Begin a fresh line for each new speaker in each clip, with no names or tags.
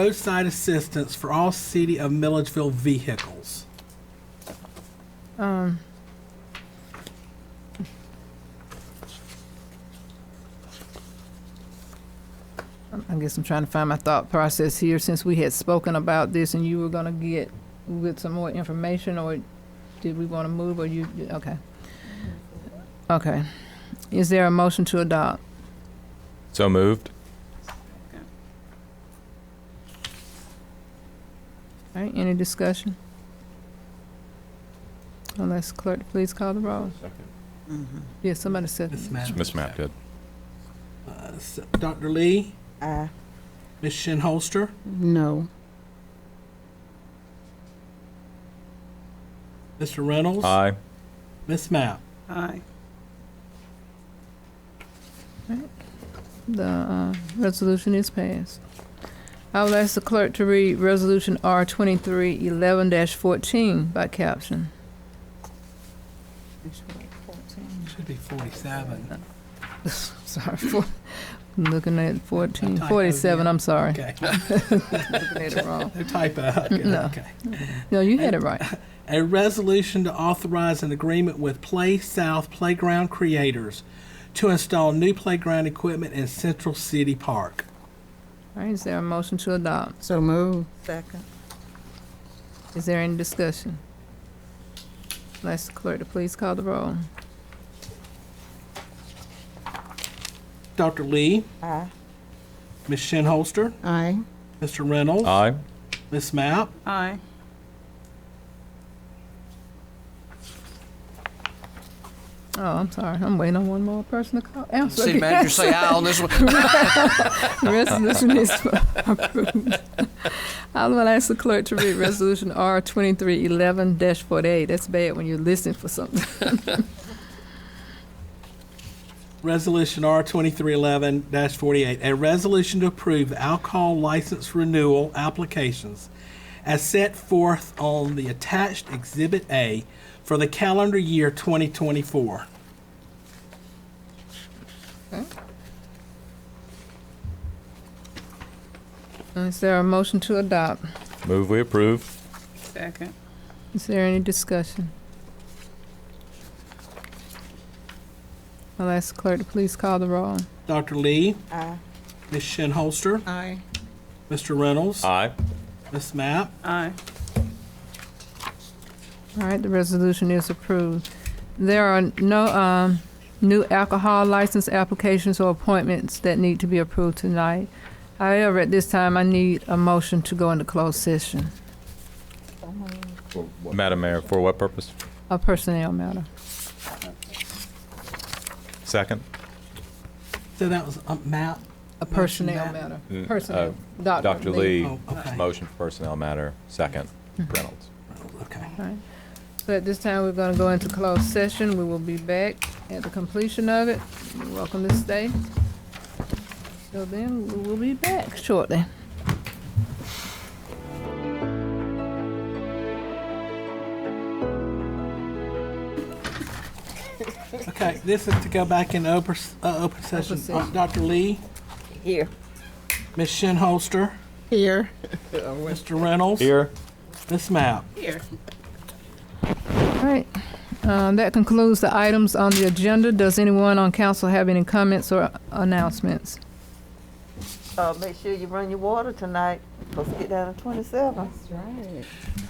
roadside assistance for all City of Milledgeville vehicles.
I guess I'm trying to find my thought process here since we had spoken about this and you were gonna get with some more information or did we want to move or you, okay. Okay. Is there a motion to adopt?
So moved.
All right, any discussion? Unless clerk, please call the roll. Yes, somebody said,
Ms. Mapp.
Miss Mapp did.
Uh, s- Dr. Lee,
Aye.
Ms. Shinholster,
No.
Mr. Reynolds,
Aye.
Ms. Mapp.
Aye.
the, uh, resolution is passed. I will ask the clerk to read Resolution R twenty-three eleven fourteen by caption.
Should be 47.
Sorry, for, I'm looking at
I
fourteen,
typoed
forty-seven,
it.
I'm sorry.
Okay,
Looking at it wrong.
no typo. Okay,
No.
okay.
No, you had it right.
A resolution to authorize an agreement with Play South Playground Creators to install new playground equipment in Central City Park.
All right, is there a motion to adopt?
So move. Second.
Is there any discussion? Let's clerk to please call the roll.
Dr. Lee,
Aye.
Ms. Shinholster,
Aye.
Mr. Reynolds,
Aye.
Ms. Mapp,
Aye.
Oh, I'm sorry, I'm waiting on one more person to call, answer.
City manager say aye on this one.
Resolution is approved. I will ask the clerk to read Resolution R twenty-three eleven forty-eight. That's bad when you're listening for something.
Resolution R twenty-three eleven forty-eight, a resolution to approve alcohol license renewal applications as set forth on the attached Exhibit A for the calendar year twenty twenty-four.
Is there a motion to adopt?
Move we approve.
Second.
Is there any discussion? I'll ask the clerk to please call the roll.
Dr. Lee,
Aye.
Ms. Shinholster,
Aye.
Mr. Reynolds,
Aye.
Ms. Mapp,
Aye.
All right, the resolution is approved. There are no um, new alcohol license applications or appointments that need to be approved tonight. However, at this time, I need a motion to go into closed session,
Madam Mayor, for what purpose?
a personnel matter.
Second.
so that was, um, Mapp?
A
Motion
personnel
ma-
matter.
Mm,
Personnel.
Dr. Lee,
Oh, okay.
motion for personnel matter. Second. Reynolds.
Okay.
So at this time, we're going to go into closed session. We will be back at the completion of it. You're welcome to stay. So then, we will be back shortly.
Okay, this is to go back in open, s- uh, open session.
Open session.
Uh, Dr. Lee,
Here.
Ms. Shinholster,
Here.
Mr. Reynolds,
Here.
Ms. Mapp.
Here.
All right, Um, that concludes the items on the agenda. Does anyone on council have any comments or announcements?
Uh, make sure you run your water tonight, supposed to get down to twenty-seven.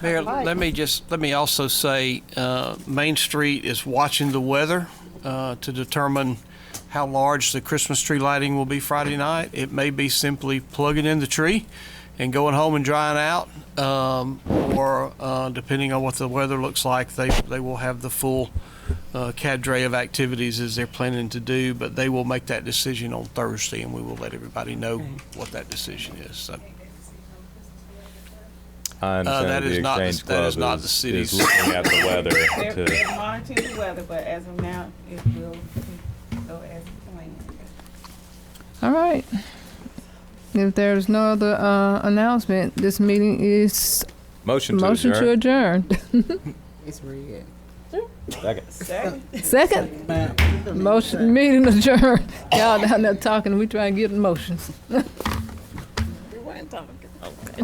Mayor, let me just, let me also say, uh, Main Street is watching the weather uh, to determine how large the Christmas tree lighting will be Friday night. It may be simply plugging in the tree and going home and drying out, um, or uh, depending on what the weather looks like, they, they will have the full uh, cadre of activities as they're planning to do, but they will make that decision on Thursday, and we will let everybody know what that decision is, so.
I understand
Uh, that
the
is not the-
Exchange
that is
Club
not the
is-
city's-
Is looking at the
They're,
weather to,
they're monitoring the weather, but as of now, it will go as planned.
All right. If there's no other uh, announcement, this meeting is
motion to
motion to
adjourn.
adjourn.
It's red.
Second.
Second.
Second,
Mapp.
motion, meeting adjourned. Y'all down there talking, we trying to get motions.
We weren't talking.